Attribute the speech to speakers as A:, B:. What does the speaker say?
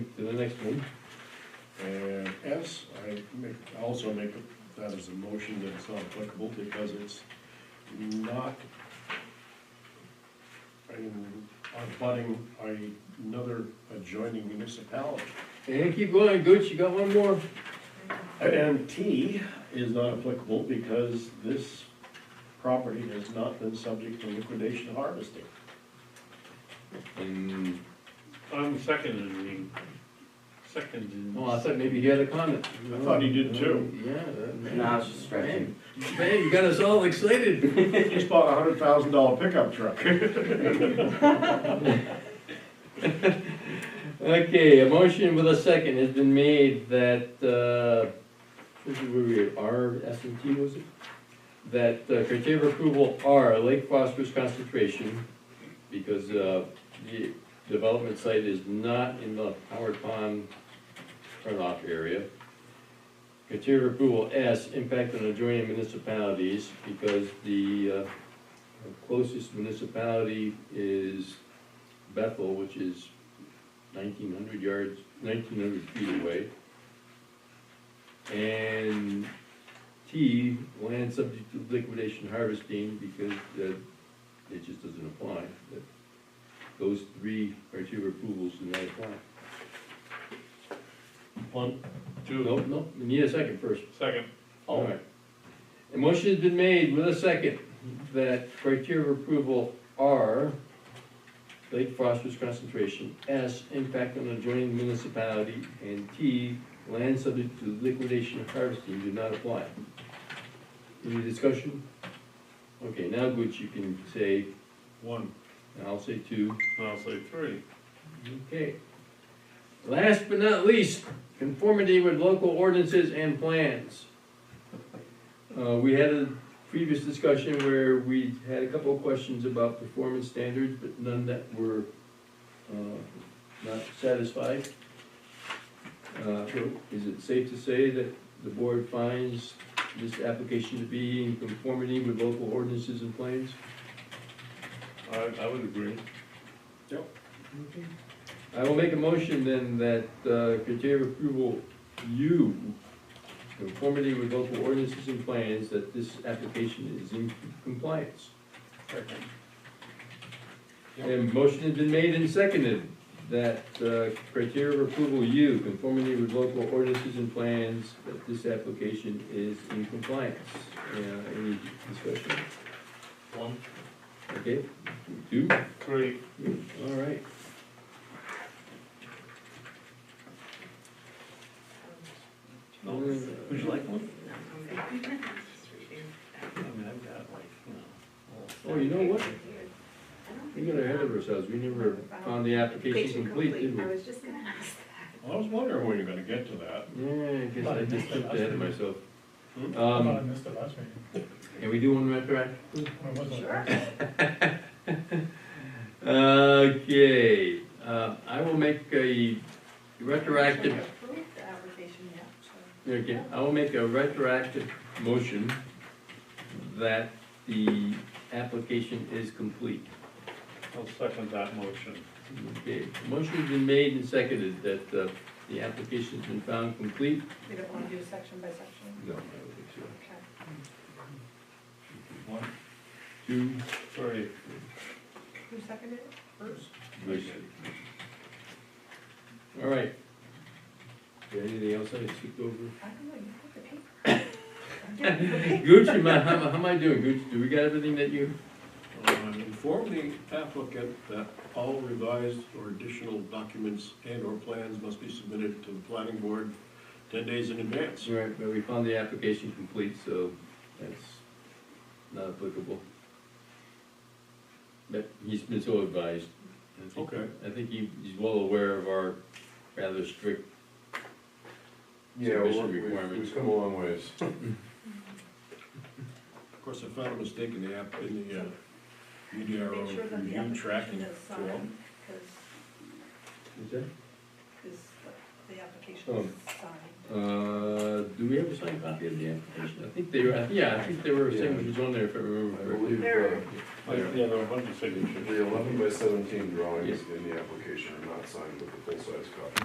A: the next one. And S, I make, also make that as a motion that it's not applicable because it's not in, abutting a- another adjoining municipality.
B: And keep going, Gooch, you got one more?
A: And T is not applicable because this property has not been subject to liquidation harvesting.
C: And
D: I'm seconding, seconding.
B: Oh, I thought maybe he had a comment.
A: I thought he did too.
B: Yeah. that-
C: Nah, I was just stretching.
B: Man, Man, you got us all excited.
A: He just bought a hundred thousand dollar pickup truck.
B: Okay, a motion with a second has been made that, uh, this is where we, R, S and T was it? That uh, criteria of approval are Lake phosphorus concentration, because, uh, the development site is not in the Howard Pond runoff area. Criteria of approval S, impact on adjoining municipalities, because the, uh, closest municipality is Bethel, which is nineteen hundred yards, nineteen hundred feet away. And T, land subject to liquidation harvesting, because that, it just doesn't apply. That- Those three criteria approvals do not apply.
D: One, two,
B: No, no, we need a second first.
D: second.
B: All right. A motion has been made with a second that criteria of approval are Lake phosphorus concentration, S, impact on adjoining municipality, and T, land subject to liquidation and harvesting do not apply. Any discussion? Okay, now Gooch, you can say,
A: One.
B: and I'll say two.
D: And I'll say three.
B: Okay. Last but not least, conformity with local ordinances and plans. Uh, we had a previous discussion where we had a couple of questions about performance standards, but none that were, uh, not satisfied. Uh, is it safe to say that the board finds this application to be in conformity with local ordinances and plans?
D: I, I would agree.
B: I will make a motion then that uh, criteria of approval U, conformity with local ordinances and plans, that this application is in compliance. And motion has been made and seconded that uh, criteria of approval U, conformity with local ordinances and plans, that this application is in compliance. Uh, Any discussion?
D: One,
B: Okay, two?
D: three.
B: All right.
D: Would you like one? I mean, I've got like, you know.
B: Oh, you know what? We got ahead of ourselves, we never found the application complete, did we?
E: I was just gonna ask
A: I was wondering when you're gonna get to that.
B: Yeah, I guess I just jumped ahead of myself.
A: Hmm?
F: I thought Uh, I
B: Um,
F: missed it last meeting.
B: can we do one retroactive?
F: When was
E: that.
F: it?
E: Sure.
B: Okay, uh, I will make a retroactive
E: Approved the application, yeah, so.
B: Okay, I will make a retroactive motion that the application is complete.
D: I'll second that motion.
B: Okay, motion's been made and seconded that uh, the application's been found complete?
E: We don't wanna do section by section,
B: No, I don't think so.
E: okay.
D: One,
B: Two,
D: three.
E: Who seconded it? Bruce?
B: three. All right. Is there Anything else I skipped over?
E: I don't know, you put the paper. I'm getting the paper.
B: Gooch, am I- how how am I doing, Gooch? Do we got everything that you?
A: Um, Inform the applicant that all revised or additional documents and/or plans must be submitted to the planning board ten days in advance.
B: All right, but we found the application complete, so that's not applicable. But he's been so advised. I think-
A: Okay.
B: I think he, he's well aware of our rather strict
C: Yeah, well,
B: Submission
C: we've,
B: requirements.
C: we've come a long ways.
A: Of course, I found a mistake in the app, in the uh,
E: Make sure
A: UDRO
E: that the
A: review
E: application
A: tracking
E: is
A: form.
E: signed, cause,
B: Is that?
E: cause the
B: Oh.
E: application is signed.
B: Uh, do we have a signed copy of the application? I think they were, I think- yeah, I think there were
C: Yeah.
B: signatures on there if I remember
C: I
B: correctly.
C: believe,
E: There-
C: uh,
D: Yeah, there are a bunch of signatures.
C: the eleven by seventeen drawings in the application are not signed with the full-size copy.